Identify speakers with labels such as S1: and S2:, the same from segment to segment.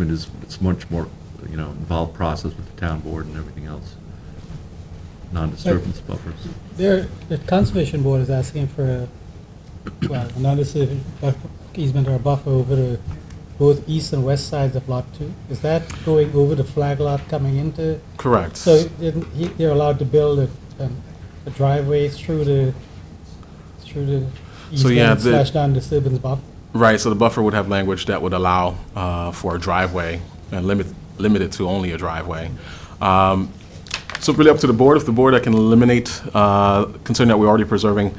S1: It is, it's much more, you know, involved process with the town board and everything else. Non-disturbance buffers.
S2: There, the conservation board is asking for a, well, another civic buffer- easement or buffer over the both east and west sides of lot two. Is that going over the flag lot coming into?
S3: Correct.
S2: So then he- they're allowed to build a, um, a driveway through the, through the
S3: So, yeah,
S2: easement
S3: the-
S2: slash non-disturbance buffer?
S3: Right, so the buffer would have language that would allow uh, for a driveway, and limit, limit it to only a driveway. Um, So really up to the board, if the board I can eliminate, uh, considering that we're already preserving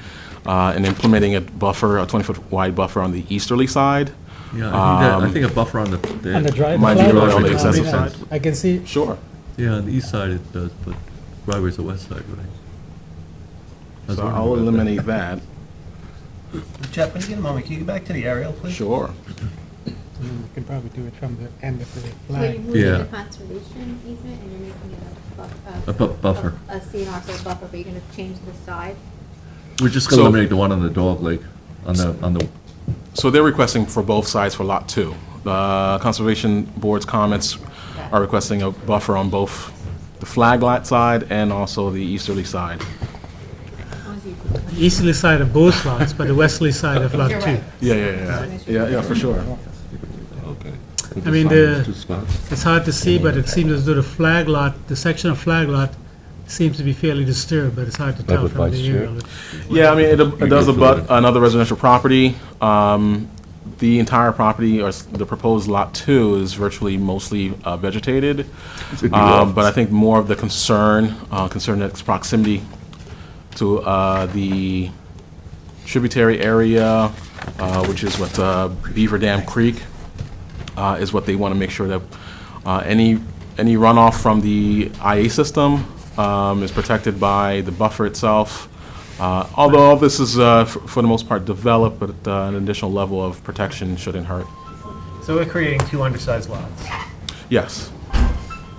S3: uh, and implementing a buffer, a 20-foot wide buffer on the easterly side. Um,
S1: Yeah, I think that, I think a buffer on the.
S2: And the drive-
S3: Might be
S2: flag lot
S3: really on the
S2: should not be
S3: excessive
S2: done.
S3: side.
S2: I can see,
S3: Sure.
S1: Yeah, on the east side it does, but driveway's the west side, right? I was
S3: So
S1: wondering
S3: I'll
S1: about that.
S3: eliminate that,
S4: Jeff, when you get a moment, can you go back to the aerial, please?
S3: sure.
S2: hmm, you can probably do it from the end of the
S5: So you're
S2: flag.
S5: moving
S1: Yeah.
S5: the conservation easement and you're making it a buff- uh,
S1: A bu- buffer.
S5: A CNR for a buffer, but you're gonna change the side?
S1: We're just gonna
S3: So-
S1: eliminate the one on the dog lake, on the, on the,
S3: So they're requesting for both sides for Lot 2. The Conservation Board's comments are requesting a buffer on both the flag lot side and also the easterly side.
S5: As long as you-
S2: Easterly side of both lots, but the westerly side of lot
S5: You're right.
S3: Yeah, yeah, yeah, yeah, yeah, yeah, for sure.
S2: I mean, the.
S1: two spots.
S2: It's hard to see, but it seems as though the flag lot, the section of flag lot seems to be fairly disturbed, but it's hard to tell
S6: would
S2: from
S6: vice
S2: the
S6: chair.
S2: aerial.
S3: Yeah, I mean, it, it does
S6: go
S3: abut another residential property. Um, the entire property, or s- the proposed Lot 2 is virtually mostly uh, vegetated. Um, But I think more of the concern, uh, concern that's proximity to uh, the tributary area, uh, which is what uh, Beaver Dam Creek, uh, is what they want to make sure that uh, any, any runoff from the IA system um, is protected by the buffer itself. Uh, Although all this is, uh, f- for the most part, developed, but uh, an additional level of protection shouldn't hurt.
S4: So we're creating two undersized lots,
S3: Yes,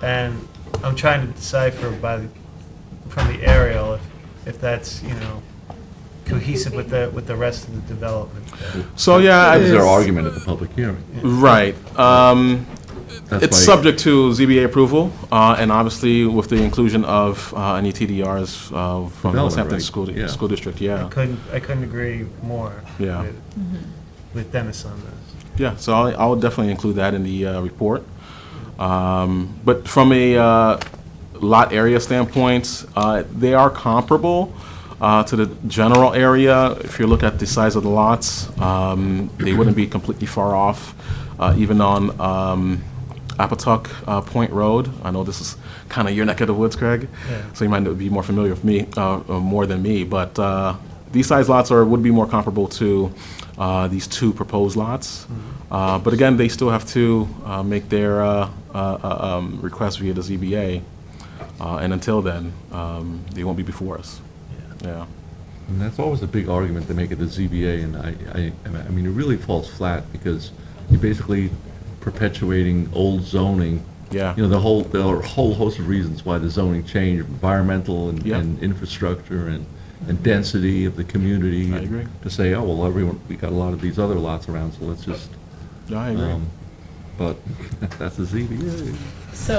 S4: and I'm trying to decipher by, the- from the aerial, if, if that's, you know, cohesive with the, with the rest of the development.
S3: so yeah. I-
S1: That was our argument at the public hearing.
S3: Right. Um,
S1: That's
S3: It's
S1: why-
S3: subject to ZBA approval, uh, and obviously with the inclusion of uh, any TDRs uh, from the
S1: Development,
S3: West Hampton
S1: right,
S3: School,
S1: yeah.
S3: School District,
S4: I
S3: yeah.
S4: couldn't, I couldn't agree more
S3: Yeah.
S4: with, with Dennis on this.
S3: Yeah, so I'll, I'll definitely include that in the uh, report. Um, But from a uh, lot area standpoint, uh, they are comparable uh, to the general area. If you look at the size of the lots, um, they wouldn't be completely far off, uh, even on um, Apatuck uh, Point Road. I know this is kind of your neck of the woods, Craig,
S4: Yeah.
S3: so you might be more familiar with me, uh, uh, more than me, but uh, these size lots are, would be more comparable to uh, these two proposed lots. Uh, But again, they still have to uh, make their uh, uh, uh, um, request via the ZBA, uh, and until then, um, they won't be before us. Yeah,
S1: And that's always a big argument they make at the ZBA, and I, I, I mean, it really falls flat, because you're basically perpetuating old zoning.
S3: Yeah.
S1: You know, the whole, there are a whole host of reasons why the zoning changed, environmental and,
S3: Yeah.
S1: and infrastructure and, and density of the community.
S3: I agree.
S1: To say, oh, well, everyone, we got a lot of these other lots around, so let's just,
S3: Yeah, I agree.
S1: um, but that's the ZBA.
S7: So,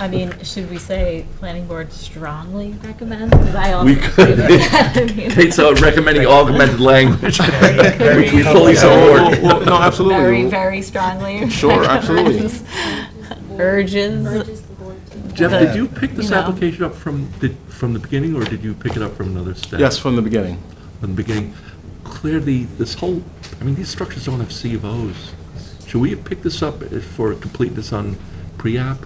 S7: I mean, should we say planning board strongly recommends? Because I also.
S1: We could.
S7: agree with that. I mean,
S1: Kate's uh, recommending augmented language.
S4: Very-
S1: We fully
S3: Well,
S4: very-
S1: support.
S3: well, No,
S7: Very,
S3: absolutely.
S7: very strongly.
S3: Sure, absolutely.
S7: recommends, Urges.
S5: Urges the board to.
S1: Jeff, did you pick
S7: You
S1: this
S7: know.
S1: application up from, did, from the beginning, or did you pick it up from another step?
S3: Yes, from the beginning.
S1: From the beginning. Clearly, this whole, I mean, these structures don't have C of Os. Should we have picked this up for completeness on pre-app?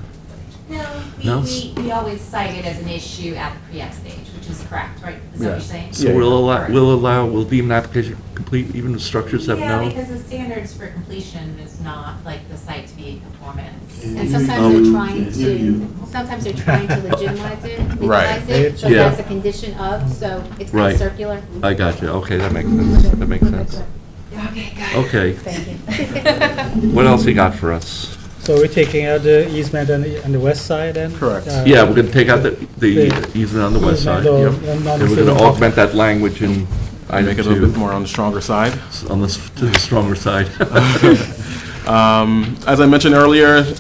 S8: No,
S1: No?
S8: we, we, we always cite it as an issue at the pre-app stage, which is correct, right? Is that what you're saying?
S1: So we'll allow, we'll allow, we'll deem an application complete, even the structures have
S8: Yeah,
S1: no?
S8: because the standards for completion is not like the site to be in conformance.
S5: And sometimes
S1: um,
S5: they're trying to, sometimes they're trying to legitimize it,
S3: Right.
S5: legalize it, so
S1: Yeah.
S5: that's a condition of, so it's kind
S1: Right.
S5: of circular.
S1: I got you, okay, that makes sense, that makes sense.
S8: Okay, got it.
S1: Okay,
S8: Thank you.
S1: what else you got for us?
S2: So we're taking out the easement on the, on the west side and?
S3: Correct.
S2: uh,
S1: Yeah, we're gonna take out the, the
S2: The-
S1: easement on the west side,
S2: easement or-
S1: yep.
S2: and not
S1: And we're gonna
S2: including-
S1: augment that language in
S3: I
S1: item
S3: make it a
S1: two.
S3: little bit more on the stronger side.
S1: on the, s- to the stronger side.
S3: Um, As I mentioned earlier,